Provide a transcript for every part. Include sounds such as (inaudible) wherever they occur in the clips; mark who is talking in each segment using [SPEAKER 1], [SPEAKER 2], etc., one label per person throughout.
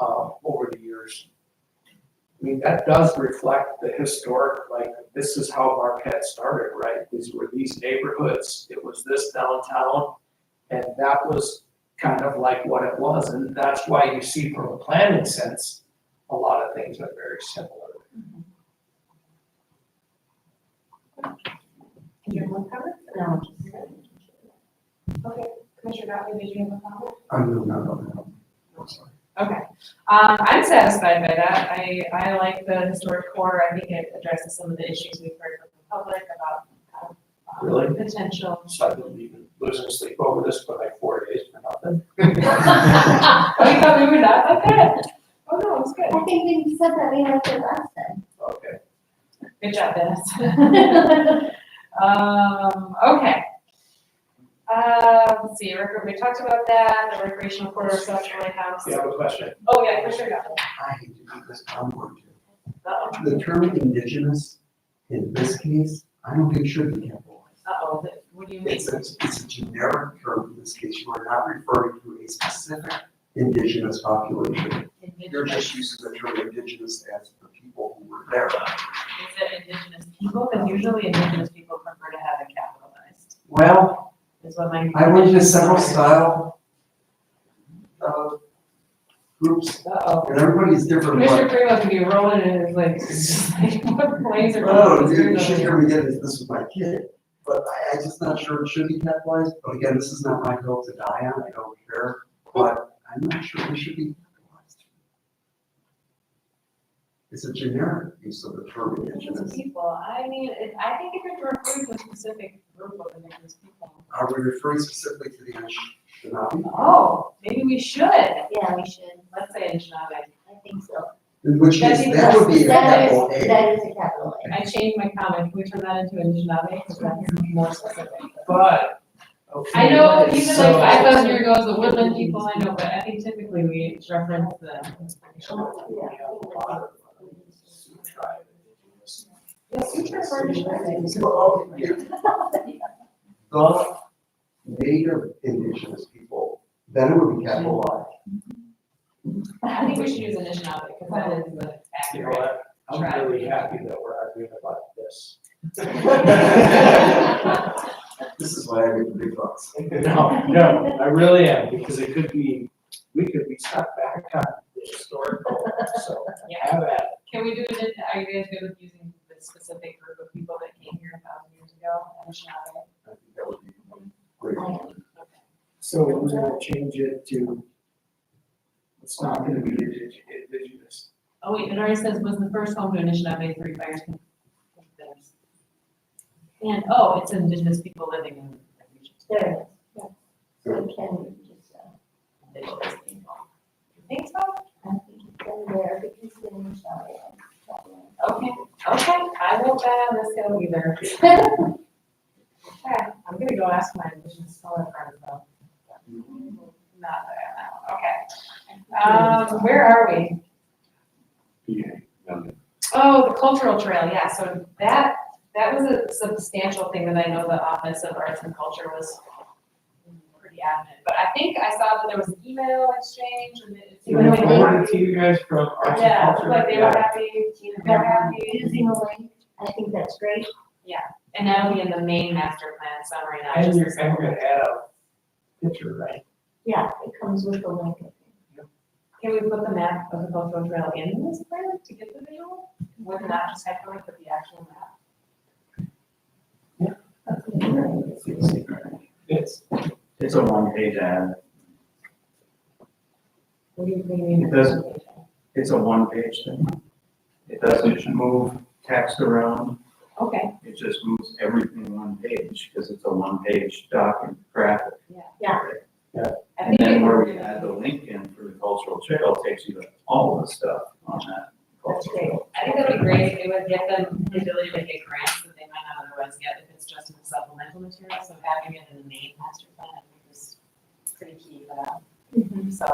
[SPEAKER 1] uh, years. I mean, that does reflect the historic, like, this is how Marquette started, right? These were these neighborhoods, it was this downtown, and that was kind of like what it was, and that's why you see from a planning sense, a lot of things are very similar.
[SPEAKER 2] Commissioner Blumhofer? No. Okay, Commissioner Gottlieb, did you have a comment?
[SPEAKER 3] I'm really not on that. I'm sorry.
[SPEAKER 2] Okay, um, I'm satisfied by that. I, I like the historic core. I think it addresses some of the issues we've heard from the public about, uh,
[SPEAKER 1] Really?
[SPEAKER 2] potential. (laughs)
[SPEAKER 1] So I've been even losing sleep over this for like four days for nothing.
[SPEAKER 2] Oh, you thought we were not? Okay. Oh, no, it's good.
[SPEAKER 4] I think when you said that, we liked it last time.
[SPEAKER 1] Okay.
[SPEAKER 2] Good job, Dennis. (laughs) Um, okay. Uh, let's see, rec- we talked about that, the recreational quarter, social lighthouse.
[SPEAKER 1] Do you have a question?
[SPEAKER 2] Oh, yeah, Commissioner Gottlieb.
[SPEAKER 3] I hate to do this, but I'm going to.
[SPEAKER 2] Uh-oh.
[SPEAKER 3] The term indigenous, in this case, I don't think should be capitalized.
[SPEAKER 2] Uh-oh, that- what do you mean?
[SPEAKER 3] It's a, it's a generic term in this case. You are not referring to a specific indigenous population. You're
[SPEAKER 2] Indigenous,
[SPEAKER 3] just using the term indigenous as the people who were there.
[SPEAKER 2] is it indigenous people? Because usually indigenous people prefer to have it capitalized,
[SPEAKER 3] Well,
[SPEAKER 2] is what my.
[SPEAKER 3] I went to several style uh, groups,
[SPEAKER 2] Uh-oh.
[SPEAKER 3] and everybody's different, but
[SPEAKER 2] Commissioner Primo could be rolling in his like, (laughs) what planes are.
[SPEAKER 3] Oh, dude, you should hear me again, this, this was my kid, but I, I just not sure it should be capitalized, but again, this is not my hill to die on, I don't care, but I'm not sure it should be capitalized. It's a generic use of the term
[SPEAKER 2] Indigenous
[SPEAKER 3] indigenous,
[SPEAKER 2] people, I mean, it- I think if it refers to a specific group of indigenous people.
[SPEAKER 3] are we referring specifically to the Anishinaabe?
[SPEAKER 2] Oh, maybe we should, let's
[SPEAKER 4] Yeah, we should.
[SPEAKER 2] say Anishinaabe.
[SPEAKER 4] I think so.
[SPEAKER 3] In which
[SPEAKER 2] That'd
[SPEAKER 3] case,
[SPEAKER 2] be
[SPEAKER 3] that would be a
[SPEAKER 4] That is,
[SPEAKER 3] capital A.
[SPEAKER 4] that is a capital A.
[SPEAKER 2] I changed my comment, can we turn that into Anishinaabe, because that's more specific.
[SPEAKER 1] But, okay.
[SPEAKER 2] I know, even like
[SPEAKER 1] so-
[SPEAKER 2] five thousand years ago, it was
[SPEAKER 1] (laughs)
[SPEAKER 2] the woodland people, I know, but I think typically we reference the. Yes, we refer to.
[SPEAKER 3] Well, oh, yeah. The native indigenous people, then it would be capitalized.
[SPEAKER 2] I think we should use Anishinaabe, because that is the
[SPEAKER 1] You know (laughs)
[SPEAKER 2] accurate.
[SPEAKER 1] what? I'm really happy that we're arguing about this. (laughs)
[SPEAKER 3] This is why I get the big bucks.
[SPEAKER 1] No, no, I really am, because it could be, we could be stuck back on the historical, so
[SPEAKER 2] (laughs) Yeah,
[SPEAKER 1] have at
[SPEAKER 2] can we do it, are you guys good with using the specific group of people that came here a thousand years ago, Anishinaabe?
[SPEAKER 3] I think that would be great.
[SPEAKER 1] So we're gonna change it to, it's not gonna be indig- indigenous.
[SPEAKER 2] Oh wait, it already says was the first home to Anishinaabe three fires. can- there's- And, oh, it's indigenous people living in. the region.
[SPEAKER 4] There it is. So we can just, uh,
[SPEAKER 2] Indigenous people. You Think so?
[SPEAKER 4] I think it's in there because then we shall. yeah.
[SPEAKER 2] Okay, okay, I won't bet on this hill either. (laughs) Okay, I'm gonna go ask my indigenous solar friend though. Not there now, okay. Um, where are we? Oh, the cultural trail, yeah, so that, that was a substantial thing that I know the Office of Arts and Culture was pretty adamant, but I think I saw that there was an email exchange and it.
[SPEAKER 1] Can I forward it to you guys from arts and
[SPEAKER 2] Yeah,
[SPEAKER 1] culture?
[SPEAKER 2] but they were happy, they were happy.
[SPEAKER 4] Using a link, I think that's great.
[SPEAKER 2] And that'll be in the main master plan summary, not
[SPEAKER 1] And
[SPEAKER 2] just
[SPEAKER 1] you're,
[SPEAKER 2] the
[SPEAKER 1] and we're
[SPEAKER 2] summary.
[SPEAKER 1] gonna add a picture, right?
[SPEAKER 4] Yeah, it comes with the link. I think.
[SPEAKER 2] Can we put the map of the cultural trail in this plan to get the visual? Would not just have to look at the actual map?
[SPEAKER 1] It's,
[SPEAKER 5] It's a one page ad.
[SPEAKER 2] What do you what do you mean?
[SPEAKER 5] It doesn't. It's a one page thing. It doesn't move text around.
[SPEAKER 2] Okay,
[SPEAKER 5] It just moves everything one page because it's a one page document graphic.
[SPEAKER 2] I
[SPEAKER 5] And
[SPEAKER 2] think.
[SPEAKER 5] then
[SPEAKER 2] we-
[SPEAKER 5] where we add the link in for the cultural trail takes you to all the stuff on that
[SPEAKER 2] That's
[SPEAKER 5] cultural
[SPEAKER 2] great.
[SPEAKER 5] trail.
[SPEAKER 2] I think that'd be great if it would get them the ability to get grants that they might not otherwise get if it's just in the supplemental material, so having it in the main master plan, I think is pretty key for that. So,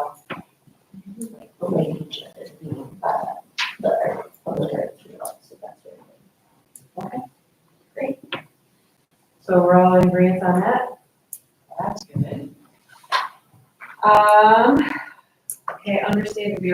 [SPEAKER 4] Like the link is being, uh, the earth, public earth, you know, so that's very good.
[SPEAKER 2] so we're all in agreement on that? That's good. Um, okay, understated, we